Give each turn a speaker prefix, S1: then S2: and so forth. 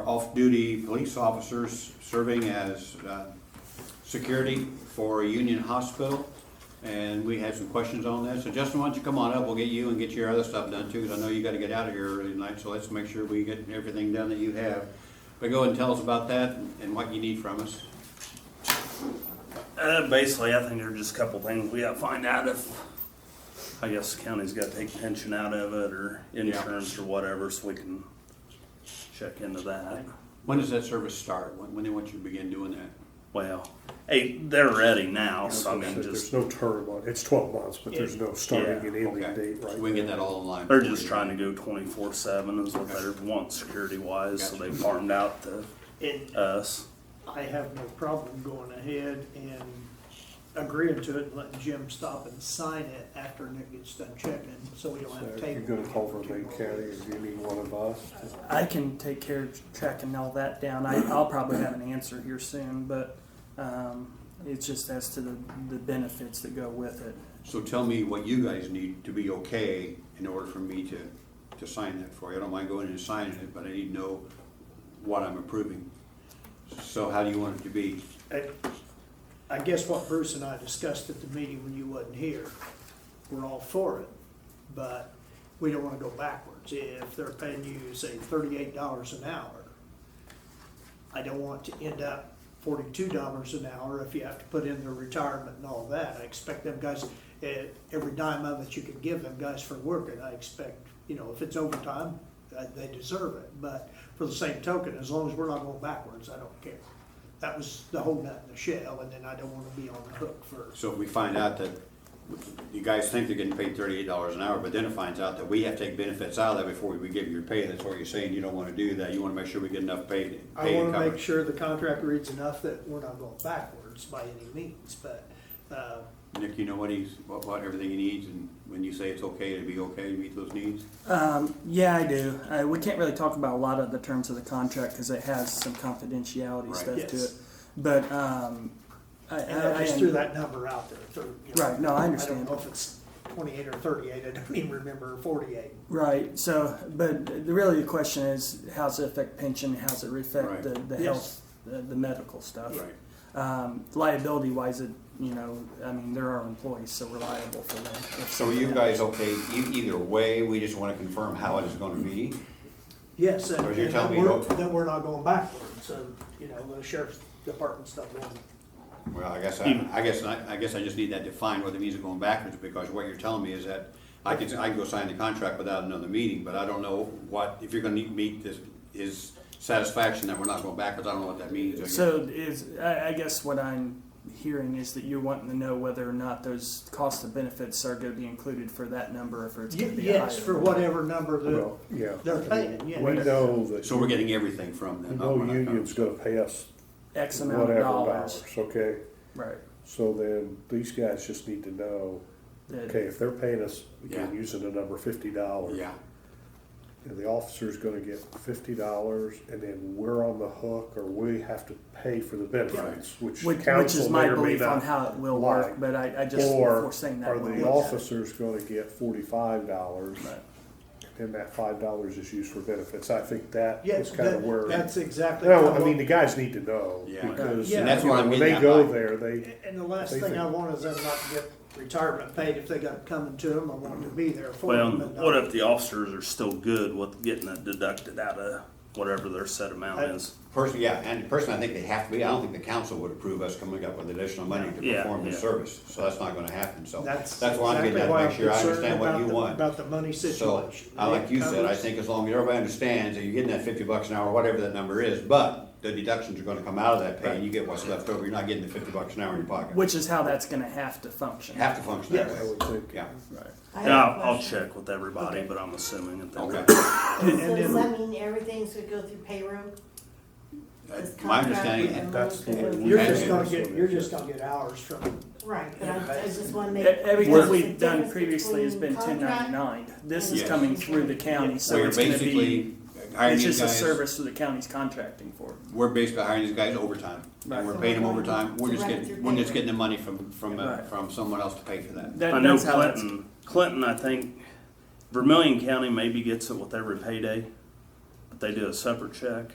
S1: off-duty police officers serving as uh, security for a Union Hospital. And we had some questions on that. So Justin, why don't you come on up? We'll get you and get your other stuff done too, because I know you gotta get out of here early tonight. So let's make sure we get everything done that you have. But go and tell us about that and what you need from us.
S2: Uh, basically, I think there are just a couple things we gotta find out if, I guess the county's gotta take pension out of it or insurance or whatever, so we can check into that.
S1: When does that service start? When, when they want you to begin doing that?
S2: Well, hey, they're ready now, so I mean,
S3: There's
S2: just,
S3: no term on, it's twelve months, but there's no starting and ending
S1: Okay,
S3: date
S1: so
S3: right
S1: we can get
S3: now.
S1: that all online.
S2: they're just trying to go twenty-four seven is what they're wanting security wise, so
S1: Gotcha.
S2: they farmed out to
S4: And
S2: us.
S4: I have no problem going ahead and agreeing to it and letting Jim stop and sign it after Nick gets done checking, so we don't
S3: So
S4: have to
S3: Uh, if
S4: table.
S3: You're
S4: it
S3: gonna call for
S4: two
S3: Lake
S4: more
S3: County,
S4: weeks.
S3: is you need one of us?
S5: I can take care of tracking all that down. I, I'll probably have an answer here soon, but um, it's just as to the, the benefits that go with it.
S1: So tell me what you guys need to be okay in order for me to, to sign that for you. I don't mind going in and signing it, but I need to know what I'm approving. So how do you want it to be?
S4: I- I guess what Bruce and I discussed at the meeting when you wasn't here, we're all for it, but we don't wanna go backwards. If they're paying you, say, thirty-eight dollars an hour, I don't want to end up forty-two dollars an hour if you have to put in their retirement and all that. I expect them guys, eh, every dime of it you could give them guys for working, I expect, you know, if it's overtime, uh, they deserve it. But for the same token, as long as we're not going backwards, I don't care. That was the whole nut in the shell, and then I don't wanna be on the hook for,
S1: So if we find out that, you guys think they're getting paid thirty-eight dollars an hour, but then it finds out that we have to take benefits out of that before we give you your pay, that's what you're saying, you don't wanna do that, you wanna make sure we get enough paid,
S4: I
S1: paid and
S4: wanna make
S1: covered.
S4: sure the contract reads enough that we're not going backwards by any means, but, uh,
S1: Nick, you know what he's, what, what, everything he needs, and when you say it's okay, it'd be okay to meet those needs?
S5: Um, yeah, I do. Uh, we can't really talk about a lot of the terms of the contract because it has some confidentiality
S1: Right.
S5: stuff to
S4: Yes.
S5: it. But um, I,
S4: And
S5: I-
S4: I
S5: I
S4: just
S5: am-
S4: threw that number out there. through, you know,
S5: Right, no, I
S4: I
S5: understand.
S4: don't know if it's twenty-eight or thirty-eight, I don't even remember, forty-eight.
S5: Right. So, but the, really the question is, how's it affect pension? How's it affect
S1: Right.
S5: the, the
S4: Yes.
S5: health, uh, the, the medical stuff? Um, liability wise, it you know, I mean, they're our employees, so we're liable for them. if
S1: So are
S5: something
S1: you
S5: happens.
S1: guys okay, e- either way, we just wanna confirm how it is gonna be?
S4: Yes, and
S1: Or you're
S4: and
S1: telling
S4: that
S1: me
S4: we're,
S1: no-
S4: that we're not going backwards, so, you know, the sheriff's department's not going.
S1: Well, I guess, I, I guess, I, I guess I just need that defined whether it means going backwards, because what you're telling me is that I can, I can go sign the contract without another meeting, but I don't know what, if you're gonna need, meet this, is satisfaction that we're not going backwards, I don't know what that means.
S5: So is I, I guess what I'm hearing is that you're wanting to know whether or not those cost of benefits are going to be included for that number, or if it's going to be
S4: Yes,
S5: higher.
S4: for whatever number
S3: Well,
S4: that,
S3: yeah.
S4: They're paying, yeah.
S3: We know that.
S1: So we're getting everything from them. not
S3: No
S1: what I-
S3: union's gonna pay us
S5: X amount
S3: whatever
S5: of dollars,
S3: dollars, okay?
S5: right?
S3: So then, these guys just need to know,
S5: That-
S3: okay, if they're paying us, again,
S1: Yeah.
S3: using the number fifty dollars.
S1: Yeah,
S3: And the officer's gonna get fifty dollars, and then we're on the hook, or we have to pay for the benefits, which
S5: Which, which
S3: council
S5: is
S3: may
S5: my
S3: or may
S5: belief on
S3: not
S5: how it will
S3: like.
S5: work, but I, I just
S3: Or
S5: foreseeing that
S3: are
S5: will
S3: the
S5: work.
S3: officers gonna get forty-five dollars? And that five dollars is used for benefits. I think that
S4: yeah,
S3: is kind of
S4: that-
S3: where.
S4: that's exactly.
S3: No,
S4: how
S3: I mean, the
S4: long-
S3: guys need to know.
S1: Yeah.
S3: Because
S4: Yeah. And that's
S3: you
S1: what
S3: know,
S1: I'm
S3: when
S1: getting
S3: they
S1: at,
S3: go
S1: like-
S3: there, they,
S4: And the last
S3: they
S4: thing I
S3: think-
S4: want is them not to get retirement paid if they got it coming to them, I want to be there for
S2: Well,
S4: them. and not-
S2: what if the officers are still good with getting it deducted out of whatever their set amount
S4: I-
S2: is?
S1: person, yeah, and person, I think they have to be, I don't think the council would approve us coming up with additional money to
S2: Yeah,
S1: perform this
S2: yeah.
S1: service, so that's not gonna happen, so.
S4: That's.
S1: That's why I'm getting
S4: exactly
S1: at,
S4: why
S1: make
S4: I'm
S1: sure I
S4: concerned
S1: understand what
S4: about
S1: you
S4: the-
S1: want.
S4: About the money
S1: So,
S4: situation.
S1: I like you said, I
S4: Covers-
S1: think as long as everybody understands that you're getting that fifty bucks an hour, whatever that number is, but the deductions are gonna come out of that pay, and you get what's left over, you're not getting the fifty bucks an hour in your pocket.
S5: Which is how that's going to have to function.
S1: Have to function that
S3: I
S1: way,
S3: would think.
S1: yeah,
S6: I
S2: And
S6: have a
S2: I'll, I'll
S6: question.
S2: check with everybody, but I'm assuming that they're.
S1: okay.
S6: So does that mean everything's gonna go through payroll? This
S1: Uh, My
S6: contract
S1: understanding,
S6: and
S3: That's the
S6: all
S3: way
S6: that?
S3: we-
S4: You're
S1: Okay.
S4: just gonna get, you're just gonna get hours from
S6: Right, but I, I just wanna make.
S5: E- Everything
S6: there's a
S5: we've done
S6: difference
S5: previously has been
S6: between
S5: ten
S6: contract-
S5: ninety nine. This is
S1: Yes.
S5: coming through the county, so
S1: we're
S5: it's going to
S1: basically
S5: be.
S1: hiring
S5: It's
S1: these
S5: just a
S1: guys,
S5: service that the county's contracting for.
S1: we're basically hiring these guys overtime,
S5: Right.
S1: and we're paying them overtime, we're
S6: To
S1: just
S6: run it through
S1: getting, we're just
S6: payroll.
S1: getting the money from, from, uh,
S5: Right.
S1: from someone else to pay for that.
S5: That,
S2: I know
S5: that's how that's-
S2: Clinton, Clinton, I think Vermillion County maybe gets it with every payday, but they do a separate check.